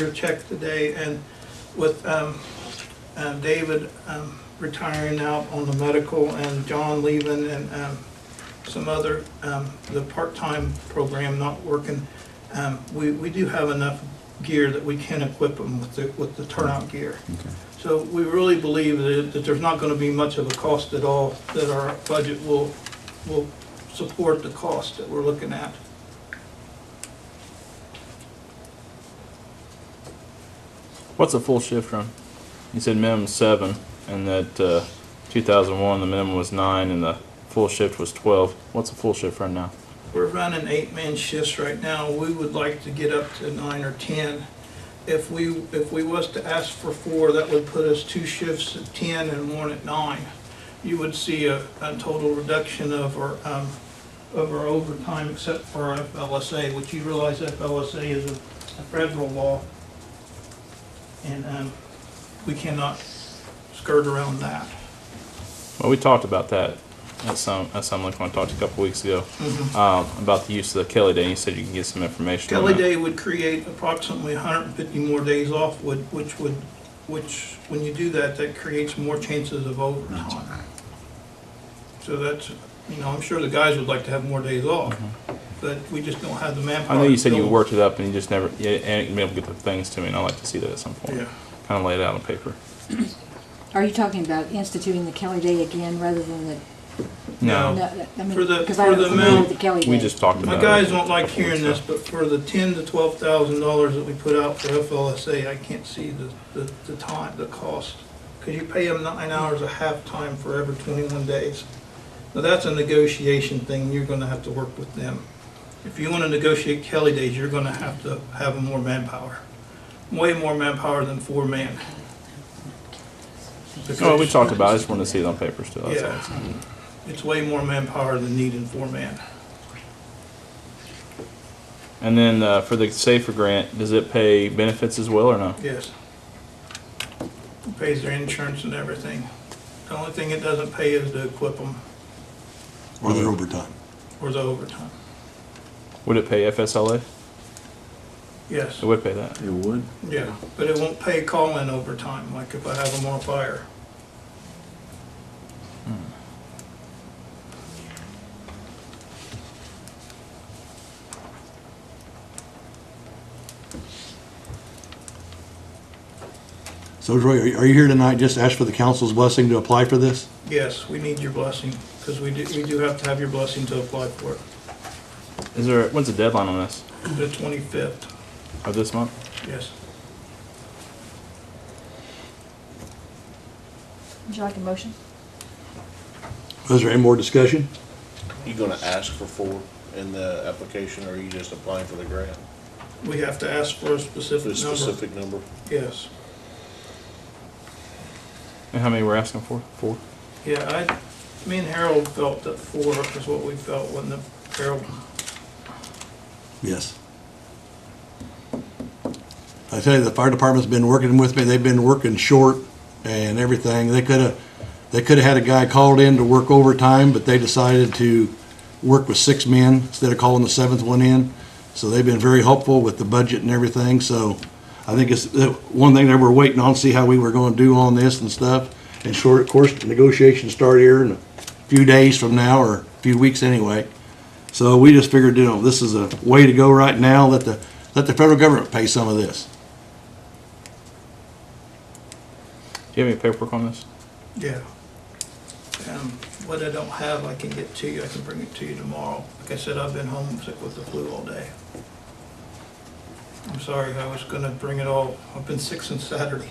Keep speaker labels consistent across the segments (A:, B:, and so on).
A: your check today, and with um, uh, David um, retiring out on the medical, and John leaving, and um, some other, um, the part-time program not working, um, we we do have enough gear that we can equip them with the with the turnout gear.
B: Okay.
A: So we really believe that, that there's not gonna be much of a cost at all, that our budget will, will support the cost that we're looking at.
C: What's a full shift run? You said minimum seven, and that uh, 2001 the minimum was nine, and the full shift was 12. What's a full shift run now?
A: We're running eight-man shifts right now, we would like to get up to nine or ten. If we, if we was to ask for four, that would put us two shifts at ten and one at nine. You would see a, a total reduction of our, um, of our overtime except for FLSA, which you realize FLSA is a a federal law. And, um, we cannot skirt around that.
C: Well, we talked about that at some at some like when I talked a couple weeks ago um, about the use of the Kelly Day. You said you can get some information. on
A: Mm-hmm. Kelly
C: that.
A: Day E would create approximately 150 more days off, would- which would, which, when you do that, that creates more chances of overtime. So that's, you know, I'm sure the guys would like to have more days off, but we just don't have the manpower.
C: I know you said
A: to
C: you
A: fill-
C: worked it up, and you just never you ain't been able to get the things to me, and I'd like to see that at some point.
A: Yeah.
C: Kind of lay it out on paper.
D: Are you talking about instituting the Kelly Day again rather than the,
A: No.
C: No,
D: no, I mean,
A: For the-
D: because I
A: for
D: don't
A: the
D: familiar
A: amount-
D: with the Kelly Day.
C: we just talked about
A: My
C: it.
A: guys
C: a
A: don't like
C: couple weeks
A: hearing
C: ago.
A: this, but for the 10 to 12,000 dollars that we put out for FLSA, I can't see the, the, the time, the cost. Because you pay them nine hours a half time for every 21 days. Now, that's a negotiation thing, you're gonna have to work with them. If you wanna negotiate Kelly days, you're gonna have to have more manpower. Way more manpower than four man.
C: Oh, we talked about it. I just wanted to see it on paper still. That's all.
A: Yeah. It's way more manpower than needed four man.
C: And then uh, for the Safer Grant, does it pay benefits as well or no?
A: Yes. Pays their insurance and everything. The only thing it doesn't pay is to equip them
B: Or their overtime.
A: or the overtime.
C: Would it pay FSLA?
A: Yes,
C: It would pay that.
B: It would?
A: yeah, but it won't pay call-in overtime, like if I have them on fire.
E: So Troy, are- are you here tonight just to ask for the council's blessing to apply for this?
A: Yes, we need your blessing, because we do, we do have to have your blessing to apply for it,
C: Is there? When's the deadline on this?
A: the twenty-fifth,
C: Of this month?
A: yes.
D: Would you like a motion?
E: Is there any more discussion?
F: You gonna ask for four in the application, or are you just applying for the grant?
A: We have to ask for a
F: For a
A: specific number,
F: specific number?
A: yes.
C: And how many we're asking for? Four.
A: Yeah, I, me and Harold felt that four is what we felt when the, Harold,
E: Yes. I tell you, the fire department's been working with me. They've been working short and everything. They could have, they could have had a guy called in to work overtime, but they decided to work with six men instead of calling the seventh one in. So they've been very helpful with the budget and everything. So I think it's the one thing that we're waiting on, see how we were going to do on this and stuff. And short, of course, negotiations start here in a few days from now or a few weeks anyway. So we just figured, you know, this is a way to go right now, let the, let the federal government pay some of this.
C: Do you have any paperwork on this?
A: Yeah. Um, what I don't have, I can get to you, I can bring it to you tomorrow. Like I said, I've been homesick with the flu all day. I'm sorry, I was gonna bring it all, I've been sick since Saturday.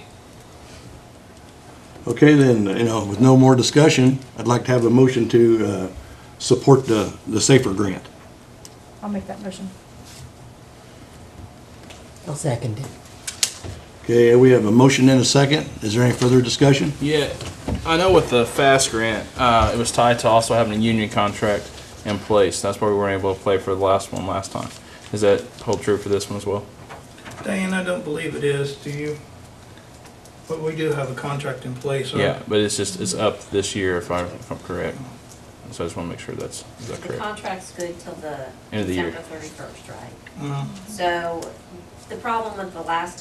E: Okay, then, you know, with no more discussion, I'd like to have a motion to, uh, support the, the SAFER grant.
G: I'll make that motion.
H: I'll second it.
E: Okay, we have a motion and a second. Is there any further discussion?
C: Yeah, I know with the FAST grant, uh, it was tied to also having a union contract in place. That's why we weren't able to play for the last one last time. Does that hold true for this one as well?
A: Diane, I don't believe it is, do you? But we do have a contract in place. aren't
C: Yeah, but it's just it's up this year if I'm if I'm correct. So I just want to make sure that's is that
I: The
C: correct.
I: contract's good till the
C: End of the year.
I: December thirty-first, right?
A: we? Mm.
I: So the problem with the last